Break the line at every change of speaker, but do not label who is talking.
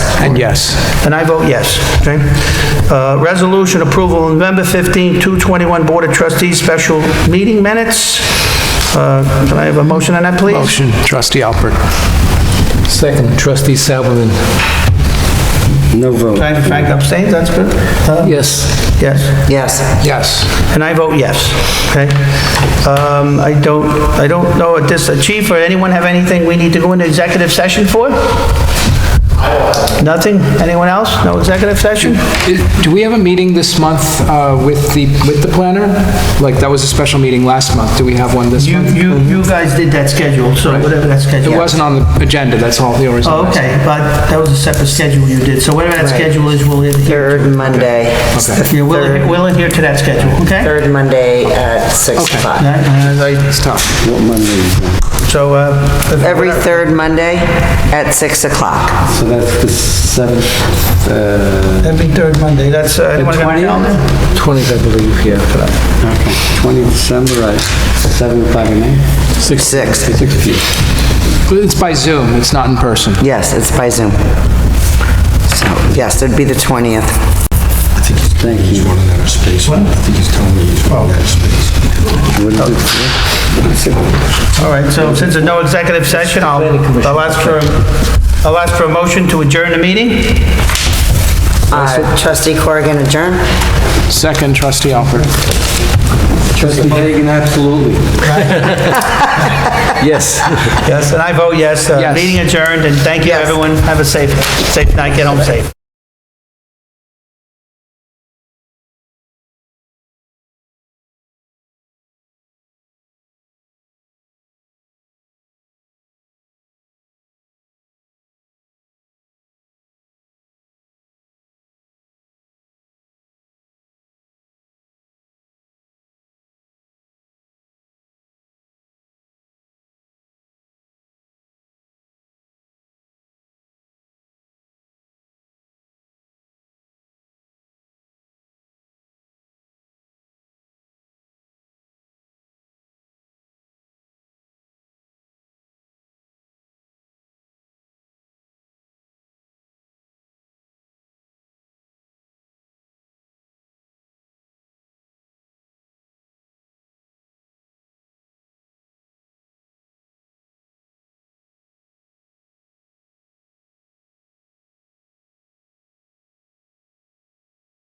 And yes.
And I vote yes, okay? Uh, Resolution approval of November 15, 221 Board of Trustees Special Meeting Minutes. Uh, Can I have a motion on that, please?
Motion, trustee Alpert.
Second, trustee Salomon.
No vote.
Frank Frank abstains, that's good? Uh,
Yes.
Yes,
Yes.
Yes.
and I vote yes, okay? Um, I don't, I don't know if this, Chief or anyone have anything we need to go into executive session for? Nothing? Anyone else? No executive session?
Do we have a meeting this month uh, with the, with the planner? Like, that was a special meeting last month. Do we have one this
You,
month?
you, you guys did that schedule, so whatever that schedule.
It wasn't on the agenda, that's all the reason. I
Oh,
was-
Okay, but that was a separate schedule you did, so whatever that schedule is, we'll adhere,
Third Monday. It's the
yeah, we'll adhere-
Third
we'll adhere to that schedule, okay?
third Monday at 6
Okay.
o'clock.
That- and I-
It's tough.
What Monday is that?
So, uh, if-
Every third Monday at 6 o'clock.
So that's the seventh, uh,
every third Monday, that's, uh, anyone got a
20th?
calendar?
20th, I believe, yeah.
okay, 20 December at 7 o'clock at night?
6.
6 p.m.
It's by Zoom, it's not in person.
Yes, it's by Zoom. So, yes, it'd be the 20th.
Thank you.
One in outer space. I think he's telling me he's one in outer space.
What is it?
All right, so since there's no executive session, I'll, I'll ask for, a- I'll ask for a motion to adjourn the meeting.
Uh, Trustee Corrigan adjourn?
Second, trustee Alpert.
Trustee Hagan, absolutely.
Yes.
Yes, and I vote yes, uh,
Yes.
meeting adjourned, and thank you, everyone, have a safe, safe night, get home safe.